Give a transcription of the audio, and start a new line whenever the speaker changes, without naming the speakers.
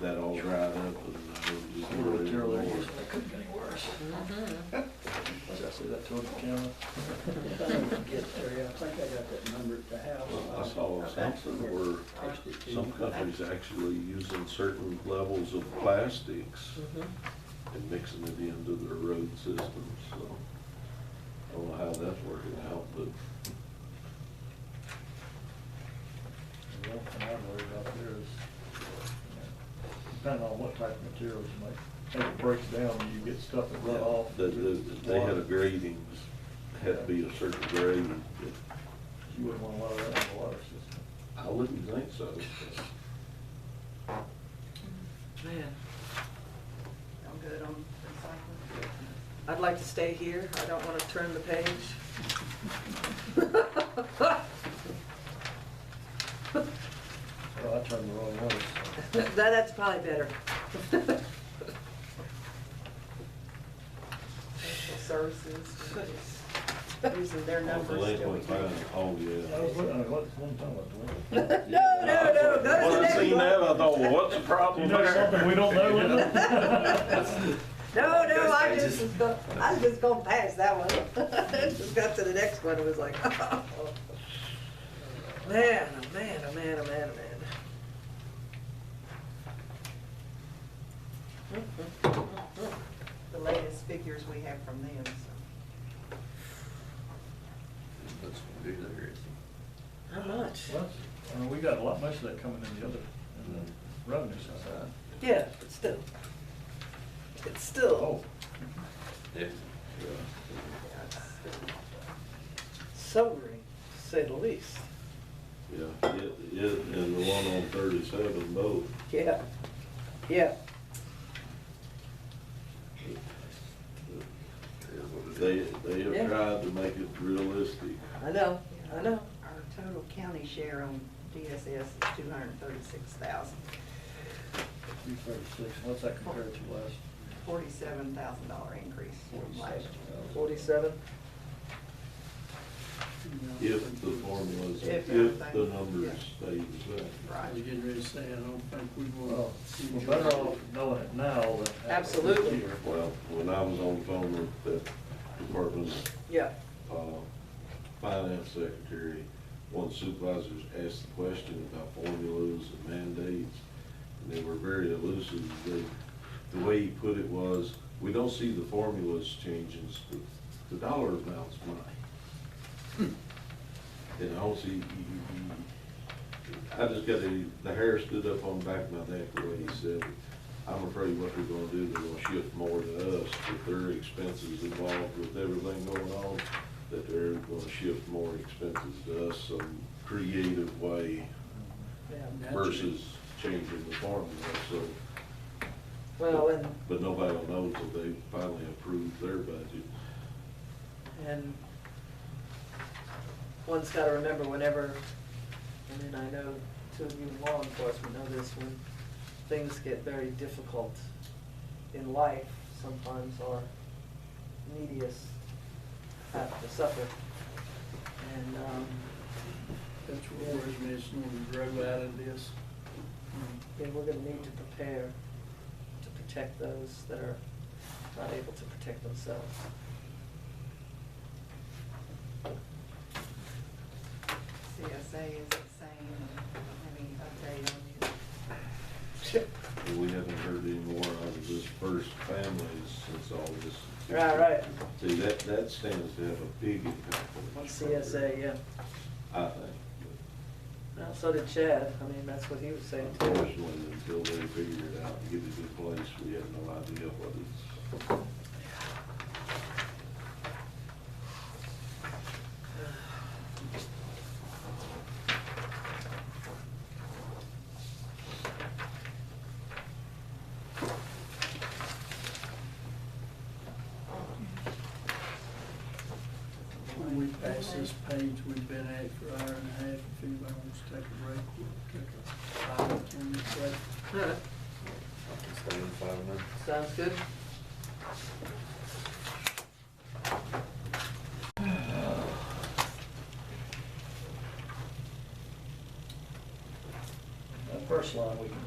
that all dried up and I was just
Little
worried
material there,
more.
yes, but it couldn't be any worse. Was I say that to the camera? Get there, I think I got that number at the
Well, I
house.
saw something where
Text it to
some
you.
companies actually using certain levels of plastics and mixing it into their road systems, so. I don't know how that's working out, but
The only thing I'm worried about there is, you know, depending on what type of materials you make, if it breaks down, you get stuff that run off.
that, that, they had a
water.
grading, had to be a certain grade, but
You wouldn't want a lot of that in the water system.
I wouldn't think so.
Man. I'm good on recycling. I'd like to stay here. I don't want to turn the page.
Well, I turned the wrong way, so.
That, that's probably better. Social services, using their numbers. till we
Delinquent fine,
can-
oh, yeah.
I was looking, I mean, what, one time I was looking.
No, no, no, go to the
When I
next
seen that,
one.
I thought, well, what's the problem there?
we don't know,
No, no, I just, was go- I was just going past that one. Just got to the next one, it was like, "Uh, oh. Man, oh man, oh man, oh man, oh uh, man.
the latest figures we have from them, so.
That's what we do there, is
How much?
I mean, we got a lot, most of that coming in the other, in the revenue side.
Yeah, but still. It's
Oh,
still
Yeah.
sobering, to say the least.
Yeah, it, it, and the one on thirty-seven both.
Yeah, yeah.
They, they
Yeah.
have tried to make it realistic.
I know, I know.
Our total county share on DSS is two hundred and thirty-six thousand,
three thirty-six, what's that compared to last?
forty-seven thousand dollar increase from last year.
Forty-seven?
If the formulas, if
If
the
everything-
numbers stay the same.
Right.
We're getting ready to say, I don't think we
Well,
want to see
we're
George.
better off knowing it now than. after
Absolutely.
the year.
Well, when I was on the phone with the department,
Yeah,
uh, finance secretary, one supervisor asked the question about formulas and mandates, and they were very elusive. They, the way he put it was, we don't see the formulas changing, the, the dollar amounts might. And I don't see, you- you- you- I just got the, the hair stood up on the back of my neck the way he said it. I'm afraid what they're gonna do, they're gonna shift more to us with their expenses involved with everything going on, that they're gonna shift more expenses to us some creative way
yeah.
versus changing the formula, so.
Well, and
But nobody will know until they finally approve their budget.
And one's gotta remember whenever, and then I know two of you in law enforcement know this, when things get very difficult in life, sometimes our neediest have to suffer. And, um,
That's what worries me, it's not to grow out of this.
then we're gonna need to prepare to protect those that are not able to protect themselves.
CSA is the same, I mean, update on you.
And we haven't heard any more out of this first family since all this.
Right, right.
See, that, that stands to have a big impact on
On
this
CSA, yeah.
I think.
Now, so did Chad, I mean, that's what he was saying too.
Unfortunately, until they figure it out and get it in place, we have no idea what it's,
When we pass this page, we've been at it for an hour and a half, if anybody wants to take a break, we'll take a five, ten minute break.
All right,
I can stay in five minutes.
sounds good.
That first line we can